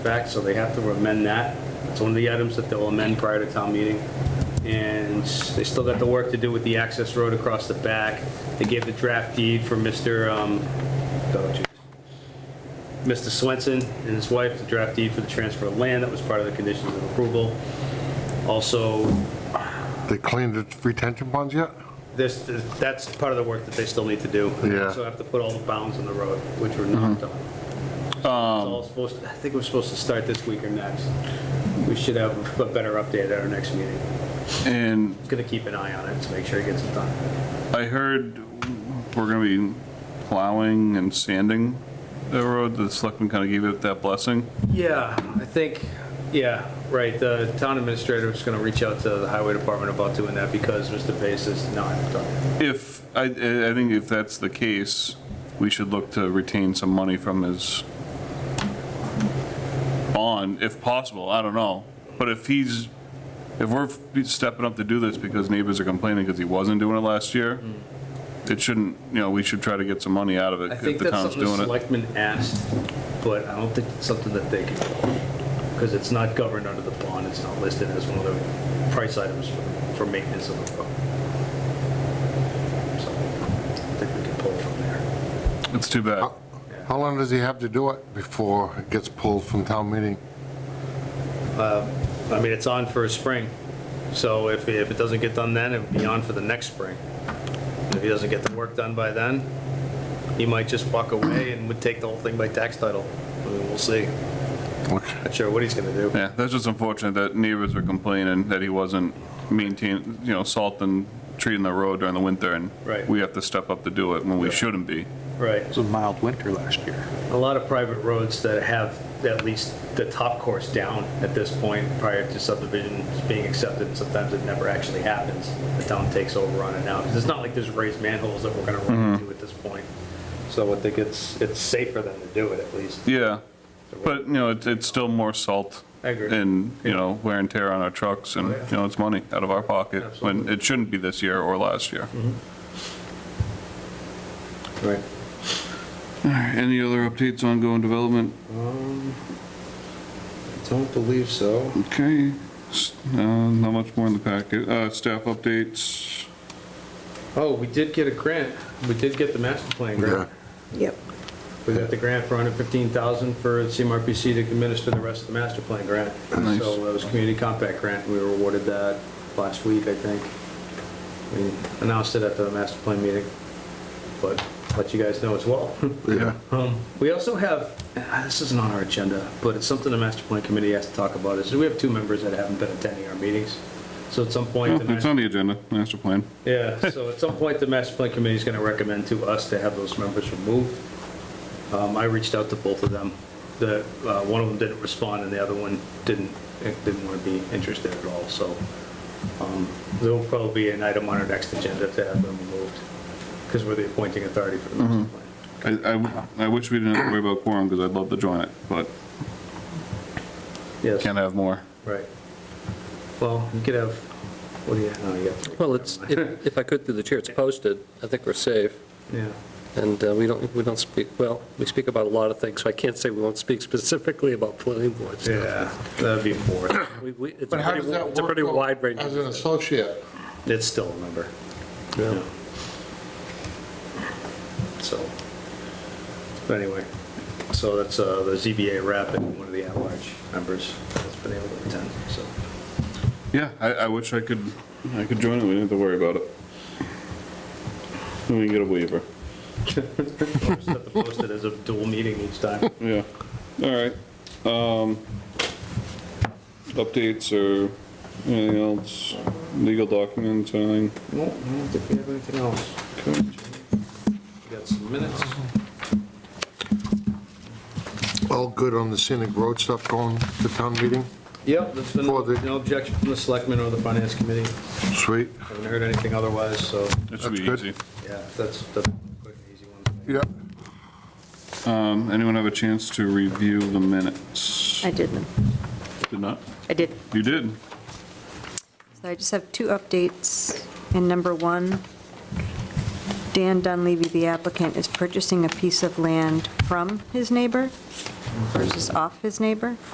back, so they have to amend that. It's one of the items that they'll amend prior to town meeting. And they still got the work to do with the access road across the back. They gave the draft deed for Mr., um, oh, geez. Mr. Swenson and his wife, the draft deed for the transfer of land, that was part of the conditions of approval. Also, They cleaned the retention ponds yet? this, that's part of the work that they still need to do. They Yeah. Also have to put all the bounds on the road, which were not done. It's all supposed, I think we're supposed to start this week or next. We should have a better update at our next meeting. And Gonna keep an eye on it to make sure it gets done. I heard we're gonna be plowing and sanding the road, the selectmen kind of gave it that blessing. Yeah, I think, yeah, right, the town administrator is gonna reach out to the highway department about doing that because Mr. Pace is not done. If, I, I think if that's the case, we should look to retain some money from his bond, if possible, I don't know. But if he's, if we're stepping up to do this because neighbors are complaining because he wasn't doing it last year, it shouldn't, you know, we should try to get some money out of it Hmm. I if think the that's town's something the doing it. selectmen asked, but I don't think it's something that they can, because it's not governed under the bond, it's not listed as one of the price items for- for maintenance of the road. So I think we can pull from there. It's too bad. How long does he have to do it before it gets pulled from town meeting? I mean, it's on for spring, so if, if it doesn't get done then, it'd be on for the next spring. And If he doesn't get the work done by then, he might just walk away and would take the whole thing by tax title. I mean, We'll see. Okay. Not sure what he's gonna do. Yeah, that's just unfortunate that neighbors were complaining that he wasn't maintaining, you know, salting, treating the road during the winter, and Right. we have to step up to do it when we shouldn't be. Right. It was a mild winter last year. a lot of private roads that have at least the top course down at this point prior to subdivisions being accepted. Sometimes it never actually happens. The town takes over on it now. 'Cause it's not like there's raised manholes that we're gonna Mm-hmm. run into at this point. So I think it's, it's safer than to do it at least. Yeah, but, you know, it's, it's still more salt. I agree. And, you know, wear and tear on our trucks, and, Oh, yeah. you know, it's money out of our pocket, when Absolutely. it shouldn't be this year or last year. Right. Mm-hmm. Any other updates on ongoing development? Um, Don't believe so. Okay, s- uh, not much more in the packet, uh, staff updates, Oh, we did get a grant. We did get the master plan Yeah. grant. Yep. We got the grant for 115,000 for CMRPC to administer the rest of the master plan grant. Nice. So uh, it was a community compact grant, we were awarded that last week, I think. We announced it at the master plan meeting, but let you guys know as well. Yeah. Um, We also have, ah, this isn't on our agenda, but it's something the master plan committee has to talk about, is we have two members that haven't been attending our meetings. So at some point. the Oh, it's master- on the agenda, master plan. yeah, so at some point, the master plan committee is going to recommend to us to have those members removed. Um, I reached out to both of them. The, uh, one of them didn't respond and the other one didn't, eh, didn't want to be interested at all, so. um, There will probably be an item on our next agenda to have them removed, because we're the appointing authority for the master plan. I, I, I wish we didn't have to worry about quorum, because I'd love to join it, but Yes, can't have more. right. Well, you could have, what do you, no, you got. Well, it's, if if I could through the chair, it's posted, I think we're safe, Yeah, and uh, we don't, we don't speak, well, we speak about a lot of things, so I can't say we won't speak specifically about planning boards. yeah, that'd be four. We- we- It's a But how pretty, does that work? it's a pretty though, wide range. As an associate? It's still a member. Yeah. Yeah. So, but anyway, so that's uh, the ZBA rep and one of the at-large members that's been able to attend, so. Yeah, I, I wish I could, I could join it, we didn't have to worry about it. And we can get a waiver. Just have to post it as a dual meeting each time. Yeah, all right. Um, updates or anything else, legal documents, anything? No, I don't think we have anything else. Okay. We got some minutes. All good on the scenic road stuff going to town meeting? Yep, there's been For the- no objection from the selectmen or the finance committee. Sweet. Haven't heard anything otherwise, so, That should be That's easy. good. yeah, that's, that's a quick and easy one. Yeah. Um, anyone have a chance to review the minutes? I did them. Did not? I did. You did? So I just have two updates. In number one, Dan Dunleavy, the applicant, is purchasing a piece of land from his neighbor versus off his neighbor.